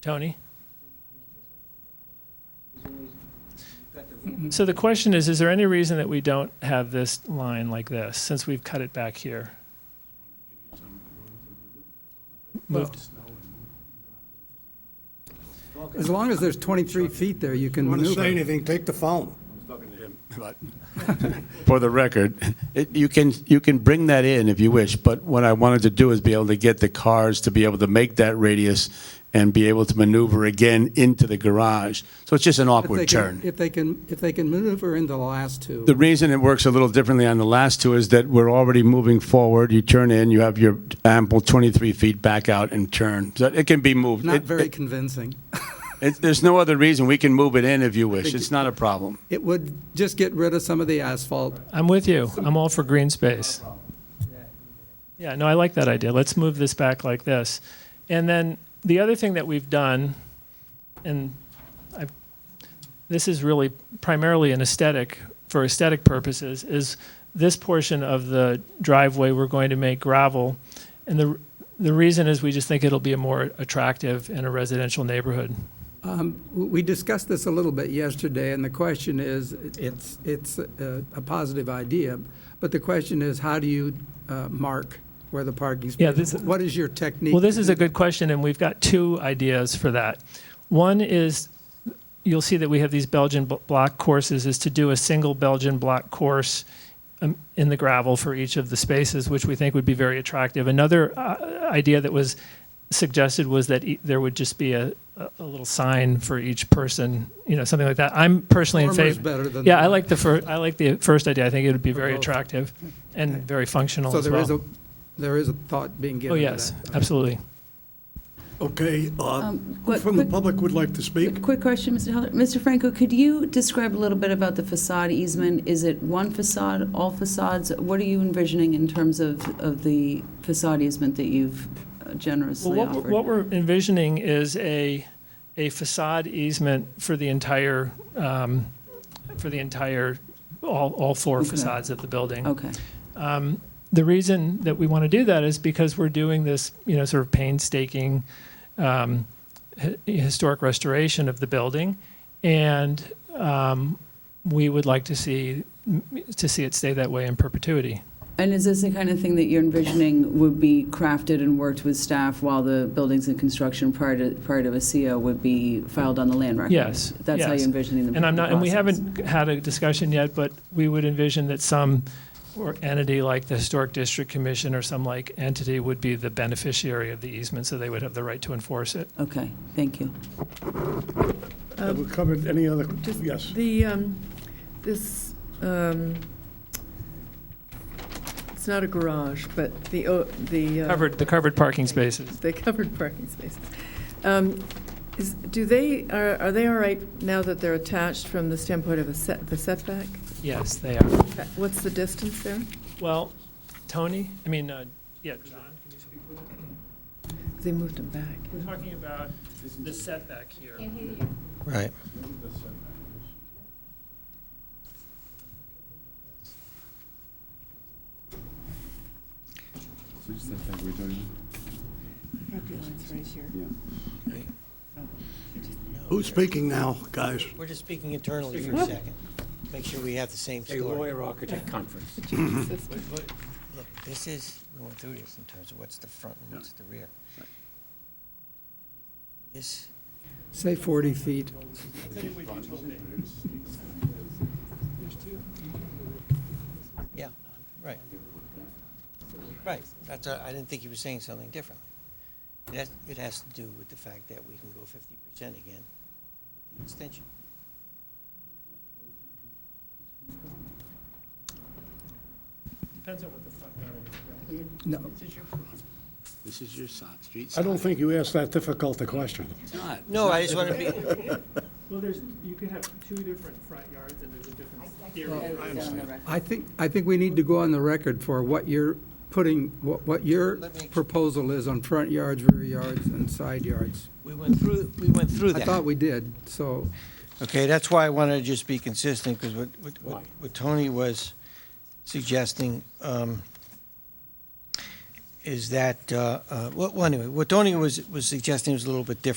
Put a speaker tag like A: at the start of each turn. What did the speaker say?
A: Tony? So the question is, is there any reason that we don't have this line like this, since we've cut it back here? Moved,
B: As long as there's 23 feet there, you can
C: Want to say
B: maneuver.
C: anything, take the phone.
D: But for the record, it, you can, you can bring that in if you wish, but what I wanted to do is be able to get the cars to be able to make that radius and be able to maneuver again into the garage. So it's just
B: If
D: an
B: they
D: awkward
B: can-
D: turn.
B: If they can, if they can maneuver in the last two.
D: The reason it works a little differently on the last two is that we're already moving forward. You turn in, you have your ample 23 feet back out and turn. So it can be moved.
B: Not
D: It-
B: very
D: it-
B: convincing.
D: it- There's no other reason. We can move it in if you wish. It's not a problem.
B: It would just get rid of some of the asphalt.
A: I'm with you, I'm all for green space. Yeah, no, I like that idea, let's move this back like this. And then, the other thing that we've done, and I've, this is really primarily an aesthetic, for aesthetic purposes, is this portion of the driveway, we're going to make gravel. And the, the reason is we just think it'll be a more attractive in a residential neighborhood.
B: W- We discussed this a little bit yesterday, and the question is, it's, it's a a positive idea, but the question is, how do you uh, mark where the parking
A: Yeah,
B: space?
A: this-
B: What is your technique?
A: Well, this is a good question, and we've got two ideas for that. One is, you'll see that we have these Belgian bl- block courses, is to do a single Belgian block course um, in the gravel for each of the spaces, which we think would be very attractive. Another uh, idea that was suggested was that e- there would just be a, a a little sign for each person, you know, something like that. I'm personally in
B: Former's
A: favor.
B: better than
A: Yeah, I
B: the-
A: like the first, I like the first idea. I think it would be very
B: both.
A: attractive and very functional
B: So
A: as
B: there is a,
A: well.
B: there is a thought being
A: Oh,
B: given to
A: yes,
B: that.
A: absolutely.
C: Okay, uh, who
E: quick-
C: from the
E: quick-
C: public would like to speak?
E: Quick question, Mr. Heller. Mr. Franco, could you describe a little bit about the facade easement? Is it one facade, all facades? What are you envisioning in terms of, of the facade easement that you've uh, generously
A: Well, what we're- What
E: offered?
A: we're envisioning is a, a facade easement for the entire, um, for the entire, all, all four
E: Okay.
A: facades of the building. Um,
E: Okay,
A: The reason that we want to do that is because we're doing this, you know, sort of painstaking um, hi- historic restoration of the building, and um, we would like to see, to see it stay that way in perpetuity.
E: and is this the kind of thing that you're envisioning would be crafted and worked with staff while the building's in construction prior to, prior to a CO would be filed on the land record?
A: Yes,
E: That's how
A: yes.
E: you're envisioning the
A: And I'm not, and we
E: process?
A: haven't had a discussion yet, but we would envision that some or entity like the Historic District Commission or some like entity would be the beneficiary of the easement, so they would have the right to enforce it.
E: Okay, thank you.
C: Have we covered any other,
F: Just
C: yes.
F: Um, The, um, this, um, it's not a garage, but the, o- the. uh,
A: Covered, the covered parking spaces.
F: The covered parking spaces. Um, Is, do they, are are they all right now that they're attached from the standpoint of a set, the setback?
A: Yes, they are.
F: What's the distance there?
A: Well, Tony, I mean, uh, yeah, John, can you speak? with us?
F: They moved them back.
A: We're talking about the setback here.
G: Right.
F: Property line's right here.
C: Who's speaking now, guys?
G: We're just speaking internally for a second. Make sure we have the same story.
H: lawyer-architect conference.
G: Look, this is, we went through this in terms of what's the front and what's the rear. This,
B: Say 40 feet.
G: yeah, right. Right, that's, uh, I didn't think you were saying something differently. That, it has to do with the fact that we can go fifty percent again, with the extension.
A: Depends on what the front yard
B: No,
D: This is your side, street
C: I don't think you asked that difficult a question.
D: It's not.
G: No, I just want to be,
A: Well, there's, you could have two different front yards and there's a different theory.
B: I think, I think we need to go on the record for what you're putting, what, what your
G: Let me-
B: proposal is on front yards, rear yards, and side yards.
G: we went through, we went through
B: I
G: that.
B: thought we did, so
G: Okay, that's why I wanted to just be consistent, because what, what- what, what Tony was suggesting, um, is that, uh, uh, well, well, anyway, what Tony was, was suggesting was a little bit different.